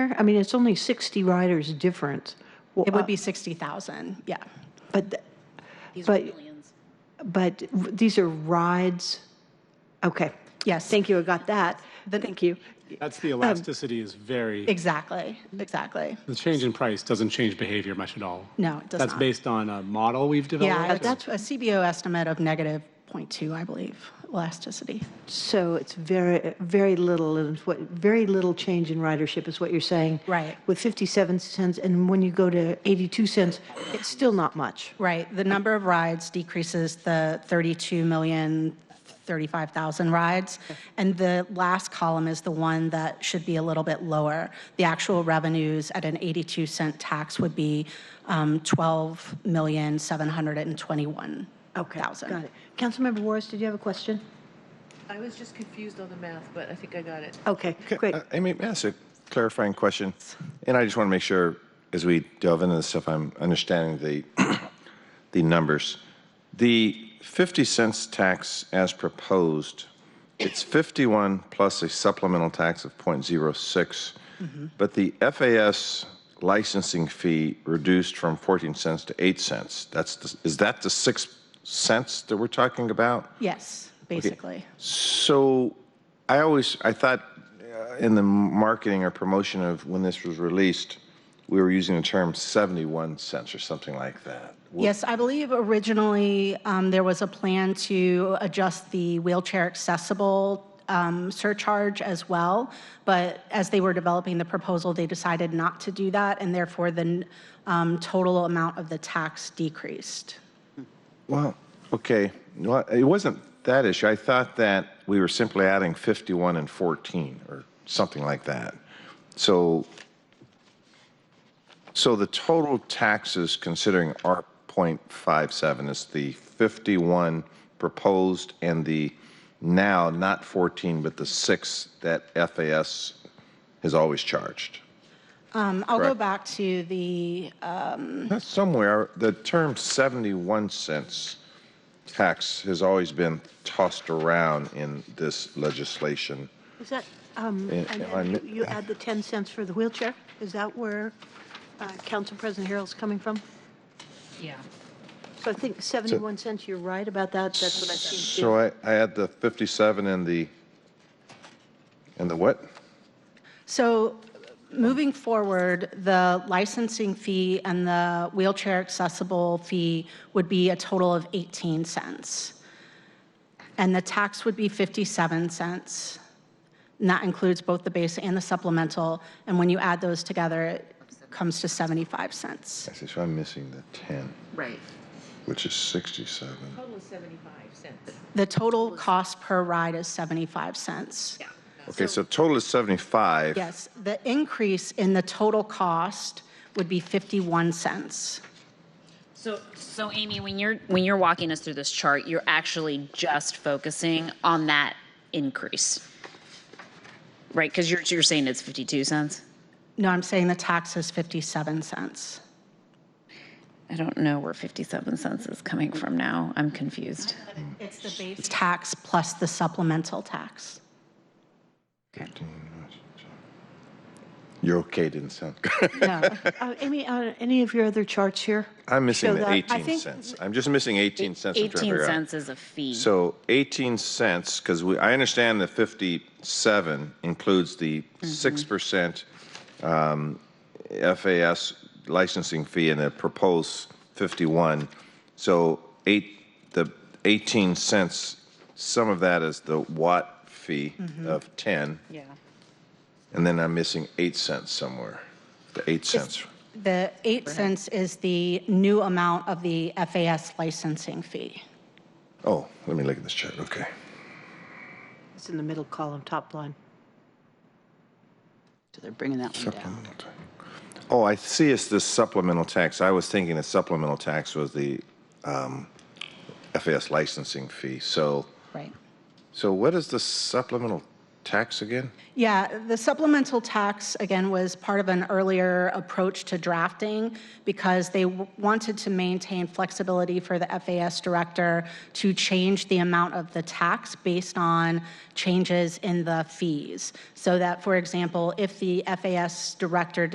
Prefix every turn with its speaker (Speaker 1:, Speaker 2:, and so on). Speaker 1: I mean, it's only 60 riders difference. Well,
Speaker 2: It
Speaker 1: uh,
Speaker 2: would be 60,000, yeah.
Speaker 1: But, th- but, but r- these are rides, okay.
Speaker 2: Yes.
Speaker 1: Thank you, I got that. Thank you.
Speaker 3: That's the elasticity is very,
Speaker 2: Exactly, exactly.
Speaker 3: the change in price doesn't change behavior much at all.
Speaker 2: No, it does
Speaker 3: That's
Speaker 2: not.
Speaker 3: based on a model we've
Speaker 2: Yeah,
Speaker 3: developed?
Speaker 2: that's a CBO estimate of negative 0.2, I believe, elasticity.
Speaker 1: So it's very, very little, and what, very little change in ridership is what you're saying.
Speaker 2: Right.
Speaker 1: With 57 cents, and when you go to 82 cents, it's still not much.
Speaker 2: Right, the number of rides decreases the 32 million, 35,000 rides. And the last column is the one that should be a little bit lower. The actual revenues at an 82 cent tax would be um, 12,721,000.
Speaker 1: Got it. Councilmember Warris, did you have a question?
Speaker 4: I was just confused on the math, but I think I got it.
Speaker 1: Okay, great.
Speaker 5: uh, I mean, that's a clarifying question, and I just want to make sure as we delve into this stuff, I'm understanding the the numbers. The 50 cents tax as proposed, it's 51 plus a supplemental tax of 0.06, but the FAS licensing fee reduced from 14 cents to 8 cents. That's the, is that the 6 cents that we're talking about?
Speaker 2: Yes, basically.
Speaker 5: So I always I thought uh, in the marketing or promotion of when this was released, we were using the term 71 cents or something like that.
Speaker 2: Yes, I believe originally um, there was a plan to adjust the wheelchair accessible um, surcharge as well, but as they were developing the proposal, they decided not to do that, and therefore the um, total amount of the tax decreased.
Speaker 5: Well, okay. Well, it wasn't that issue. I thought that we were simply adding 51 and 14 or something like that. So so the total taxes considering our 0.57 is the 51 proposed and the now not 14 but the 6 that FAS has always charged.
Speaker 2: Um, I'll go
Speaker 5: Correct.
Speaker 2: back to the, uh,
Speaker 5: That's somewhere, the term 71 cents tax has always been tossed around in this legislation.
Speaker 1: Is that, um,
Speaker 5: Yeah,
Speaker 1: and then
Speaker 5: I'm-
Speaker 1: you you add the 10 cents for the wheelchair? Is that where uh, Council President Harrell's coming from?
Speaker 4: Yeah.
Speaker 1: So I think 71 cents, you're right about that, that's what I see.
Speaker 5: So I, I had the 57 and the, and the what?
Speaker 2: so moving forward, the licensing fee and the wheelchair accessible fee would be a total of 18 cents. And the tax would be 57 cents. And that includes both the base and the supplemental. And when you add those together, it comes to 75 cents.
Speaker 5: I see, so I'm missing the 10,
Speaker 4: Right.
Speaker 5: which is 67.
Speaker 4: Total is 75 cents.
Speaker 2: The total cost per ride is 75 cents.
Speaker 4: Yeah.
Speaker 5: Okay, so total is 75.
Speaker 2: Yes, the increase in the total cost would be 51 cents.
Speaker 6: So, so Amy, when you're when you're walking us through this chart, you're actually just focusing on that increase, right? Because you're you're saying it's fifty two cents.
Speaker 2: No, I'm saying the tax is 57 cents.
Speaker 6: I don't know where fifty seven cents is coming from now. I'm confused.
Speaker 2: It's the base. Tax plus the supplemental tax.
Speaker 5: You're okay, didn't sound good.
Speaker 2: No,
Speaker 1: Uh, Amy, uh, any of your other charts here?
Speaker 5: I'm missing
Speaker 1: show
Speaker 5: the
Speaker 1: that? I
Speaker 5: 18
Speaker 1: think-
Speaker 5: cents. I'm just missing 18 cents. I'm trying to
Speaker 6: Eighteen
Speaker 5: figure out.
Speaker 6: cents is a fee.
Speaker 5: So 18 cents, because we, I understand the 57 includes the 6% um, FAS licensing fee and the proposed 51. So eight, the 18 cents, some of that is the watt fee of 10,
Speaker 6: yeah,
Speaker 5: and then I'm missing 8 cents somewhere, the 8 cents.
Speaker 2: the eight cents is the new amount of the FAS licensing fee.
Speaker 5: Oh, let me look at this chart, okay.
Speaker 1: It's in the middle column, top line.
Speaker 7: So they're bringing that one down.
Speaker 5: Supplemental tax. Oh, I see it's the supplemental tax. I was thinking the supplemental tax was the um, FAS licensing fee. So,
Speaker 2: Right.
Speaker 5: so what is the supplemental tax again?
Speaker 2: Yeah, the supplemental tax, again, was part of an earlier approach to drafting because they w- wanted to maintain flexibility for the FAS director to change the amount of the tax based on changes in the fees. So that, for example, if the FAS director